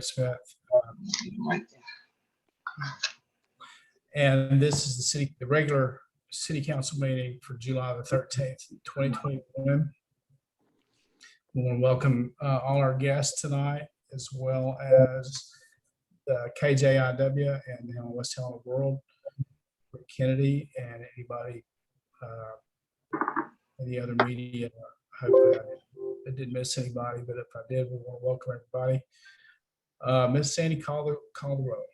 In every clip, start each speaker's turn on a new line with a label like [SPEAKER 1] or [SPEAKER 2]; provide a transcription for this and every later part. [SPEAKER 1] Smith. um, And this is the city, the regular city council meeting for July the thirteenth, twenty twenty-one. We want to welcome uh, all our guests tonight, as well as the KJIW and the West Helena World, Rick Kennedy, and anybody, uh, any other media. I hope I didn't miss anybody, but if I did, we want to welcome everybody. Uh, Ms. Sandy, call the, call the roll.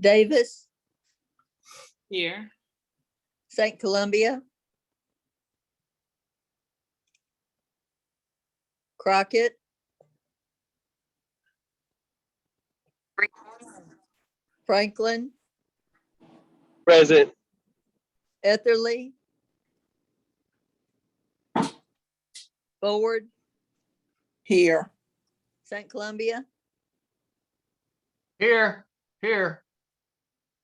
[SPEAKER 2] Davis,
[SPEAKER 3] Here.
[SPEAKER 2] St. Columbia. Crockett. Franklin,
[SPEAKER 4] Present.
[SPEAKER 2] Etherly. Forward,
[SPEAKER 5] Here,
[SPEAKER 2] St. Columbia,
[SPEAKER 4] Here, here.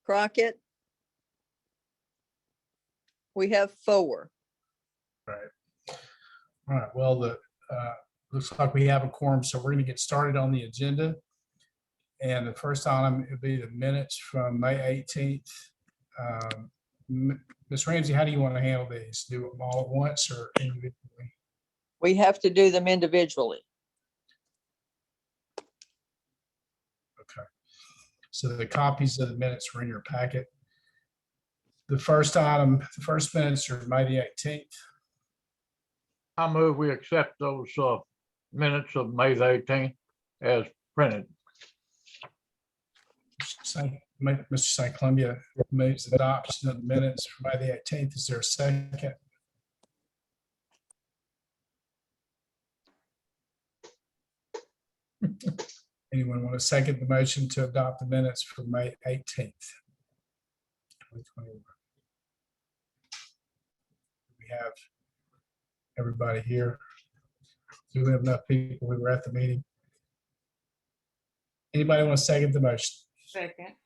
[SPEAKER 2] Crockett. We have four.
[SPEAKER 1] All right, well, the, uh, looks like we have a quorum, so we're gonna get started on the agenda. And the first item would be the minutes from May eighteenth. Ms. Ramsey, how do you want to handle these? Do them all at once or individually?
[SPEAKER 2] We have to do them individually.
[SPEAKER 1] So the copies of the minutes were in your packet. The first item, the first minutes are May the eighteenth.
[SPEAKER 4] I move we accept those uh, minutes of May the eighteenth as printed.
[SPEAKER 1] Mr. St. Columbia moves adoption of the minutes for May the eighteenth. Is there a second? Anyone want to second the motion to adopt the minutes for May eighteenth? We have everybody here. Do we have enough people? We were at the meeting. Anybody want to second the motion?
[SPEAKER 3] Second.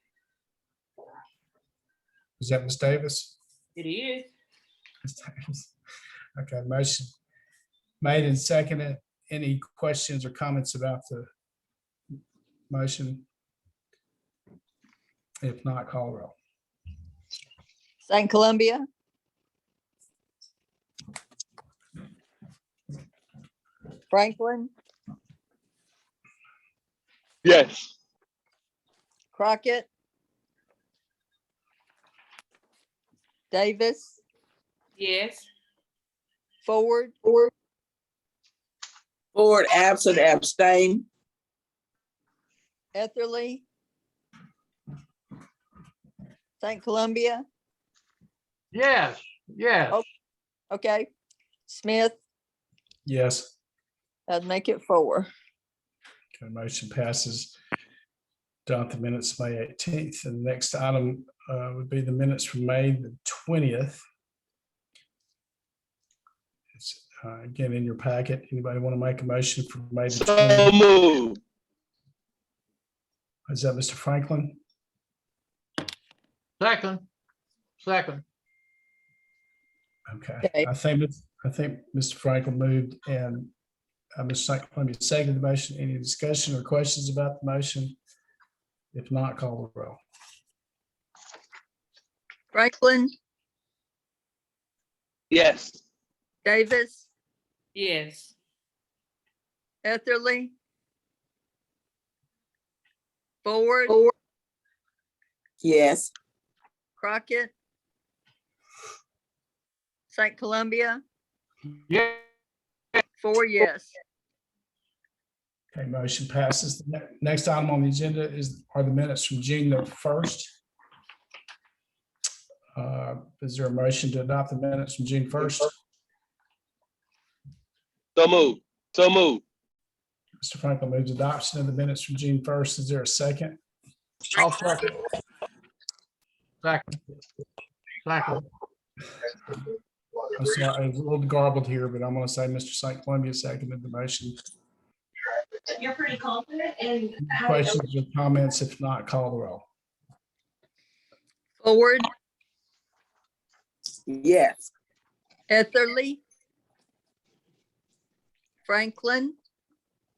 [SPEAKER 1] Is that Ms. Davis?
[SPEAKER 3] It is.
[SPEAKER 1] Ms. Davis. Okay, motion made and seconded. Any questions or comments about the motion? If not, call the roll.
[SPEAKER 2] St. Columbia. Franklin,
[SPEAKER 4] Yes.
[SPEAKER 2] Crockett. Davis,
[SPEAKER 3] Yes.
[SPEAKER 2] Ford,
[SPEAKER 5] Ford absent, abstain.
[SPEAKER 2] Etherly. St. Columbia,
[SPEAKER 4] Yes, yes.
[SPEAKER 2] Oh. okay. Smith,
[SPEAKER 1] Yes,
[SPEAKER 2] that'd make it four.
[SPEAKER 1] okay, motion passes. Adopt the minutes, May eighteenth. And the next item uh, would be the minutes from May the twentieth. It's uh, again in your packet. Anybody want to make a motion for May the
[SPEAKER 6] So
[SPEAKER 1] 20th?
[SPEAKER 6] moved.
[SPEAKER 1] Is that Mr. Franklin?
[SPEAKER 4] Second, second.
[SPEAKER 1] Okay,
[SPEAKER 2] Okay.
[SPEAKER 1] I think, it's- I think Mr. Franklin moved and uh, Ms. St. Columbia seconded the motion. Any discussion or questions about the motion? If not, call the roll.
[SPEAKER 2] Franklin,
[SPEAKER 6] Yes.
[SPEAKER 2] Davis,
[SPEAKER 3] Yes.
[SPEAKER 2] Etherly. Ford,
[SPEAKER 5] Yes,
[SPEAKER 2] Crockett. St. Columbia,
[SPEAKER 4] Yeah,
[SPEAKER 2] four yes.
[SPEAKER 1] Okay, motion passes. The ne- next item on the agenda is, are the minutes from June the first. Uh, Is there a motion to adopt the minutes from June first?
[SPEAKER 6] So moved. So moved.
[SPEAKER 1] Mr. Franklin moves adoption of the minutes from June first. Is there a second?
[SPEAKER 4] I'll second. Second. Second.
[SPEAKER 1] I'm sorry, I was a little garbled here, but I'm going to say Mr. St. Columbia seconded the motion.
[SPEAKER 7] You're pretty confident and.
[SPEAKER 1] Questions or comments? If not, call the roll.
[SPEAKER 2] Ford,
[SPEAKER 5] yes,
[SPEAKER 2] Etherly. Franklin,